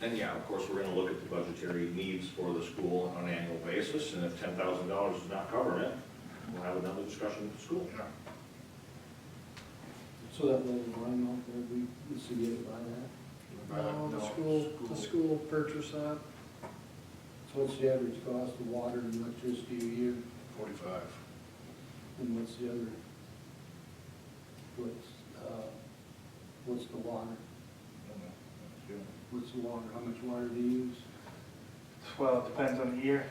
Then, yeah, of course, we're gonna look at the budgetary needs for the school on an annual basis, and if ten thousand dollars is not covering it, we'll have another discussion with the school. Yeah. So that little line off there, we, we see it by that? No, No, Oh, the school, the school purchased that, So what's the average cost of water and electricity a year, Forty-five. and what's the other? What's, uh, what's the water, what's the water, how much water do you use? Well, it depends on the year,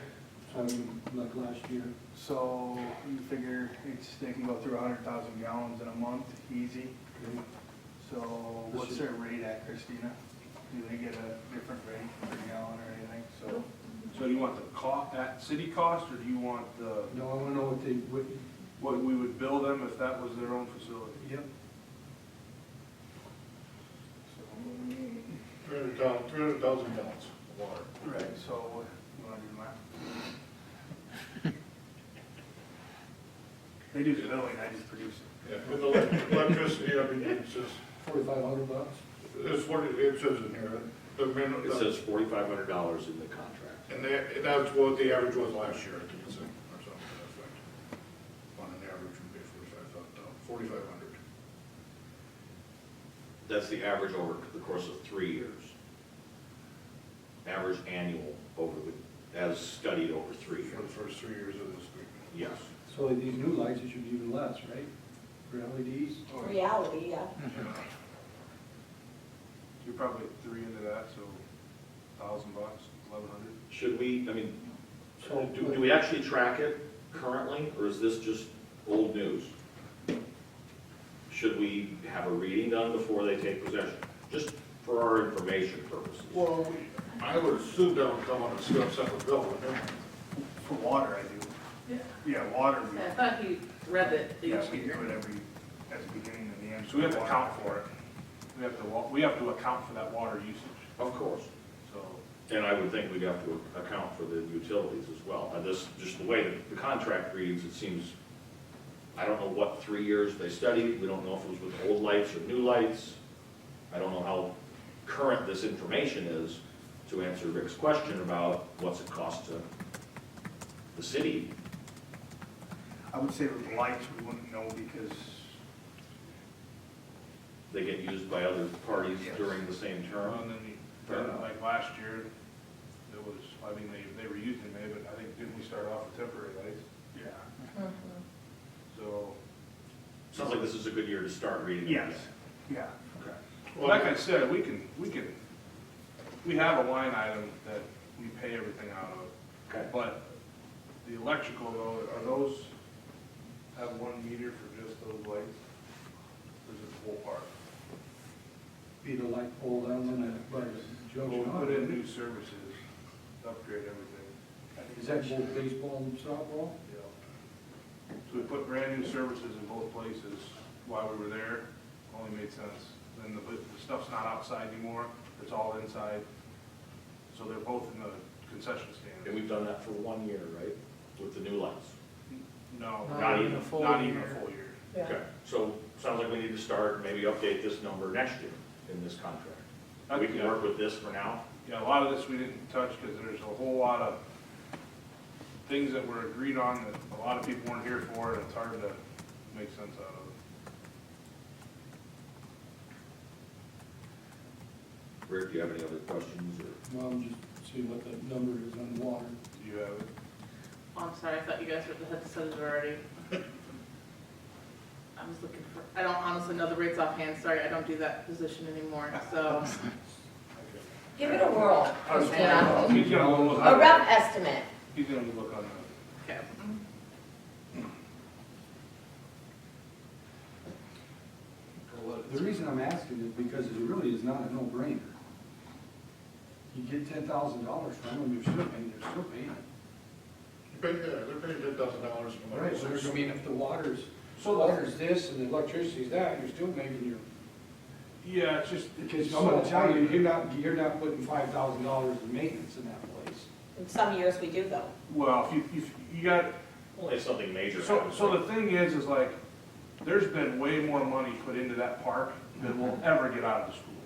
I mean, like last year, so you figure it's, they can go through hundred thousand gallons in a month, easy. okay? So what's their rate at, Christina? Do they get a different rate per gallon or anything, so? So you want the cost, at city cost, or do you want the, No, I wanna know what they, what, what we would bill them if that was their own facility? Yep. Three hundred thousand, three hundred thousand gallons of water. Right, so you wanna do the math? They do the billing, I just produce it. Yeah, with elec- electricity, I mean, it's just, forty-five hundred bucks? it's what it it says in here, the minimum. It says forty-five hundred dollars in the contract. And that, and that's what the average was last year, I think it's, or something to that effect. On an average, would be forty-five thousand, forty-five hundred. That's the average over the course of three years. Average annual over the, as studied over three For the years. first three years of this agreement. Yes. So these new lights, it should be even less, right? For E LEDs? reality, yeah. Hmm. You're probably three into that, so thousand bucks, eleven hundred? Should we, I mean, So- do, do we actually track it currently, or is this just old news? Should we have a reading done before they take possession? Just for our information purposes. Well, we- I would assume that would come on a se- separate bill, wouldn't it? For water, I do. Yeah. Yeah, water, we, I thought he read it yeah, each we do year. it every, at the beginning and the end. So we have to Water. account for it. We have to, wa- we have to account for that water usage, Of course. so. And I would think we'd have to account for the utilities as well. And this, just the way that the contract reads, it seems, I don't know what three years they studied, we don't know if it was with old lights or new lights. I don't know how current this information is to answer Rick's question about what's it cost to the city. I would say with lights, we wouldn't know because, They get used by other parties Yes. during the same term. And then, you- then, like last year, it was, I mean, they, they were using it, but I think, didn't we start off with temporary lights? yeah, So, Sounds like this is a good year to start reading. it yes, again. yeah. okay. Well, like I said, we can, we can, we have a line item that we pay everything out of, Okay. but the electrical though, are those, have one meter for just those lights? Or is it the whole park? Be the light pole down on that, but Well, junction. we put in new services, upgrade everything, Is that both baseball and softball? you know. So we put brand new services in both places while we were there, only made sense. Then the, the stuff's not outside anymore, it's all inside. So they're both in the concession stand. And we've done that for one year, right, with the new lights? No, Not not even even, a full not even a year. full year. Okay, so sounds like we need to start, maybe update this number next year in this contract. We can work with this for now? Yeah, a lot of this we didn't touch because there's a whole lot of things that were agreed on that a lot of people weren't here for and it's hard to make sense out of. Rick, do you have any other questions or? Well, I'm just seeing what the number is on the water. Do you have it? Oh, I'm sorry, I thought you guys were at the head of studies already. I was looking for, I don't honestly know the rates offhand, sorry, I don't do that position anymore, so. Give it a whirl, Christina. He's gonna go look A on, rough estimate. he's gonna look on Okay. The reason I'm asking is because it really is not a no-brainer. You get ten thousand dollars from them, you're still paying, you're still paying. You pay, yeah, they're paying ten thousand dollars no matter Right, what. so I mean, if the water's, water's this and the electricity's that, you're still making your. the. Yeah, it's just. Because I'm gonna tell you, you're not, you're not putting five thousand dollars in maintenance in that place. In some years we do though. Well, if you, if you got, Only if something major So, happens. so the thing is, is like, there's been way more money put into that park than will ever get out of the school.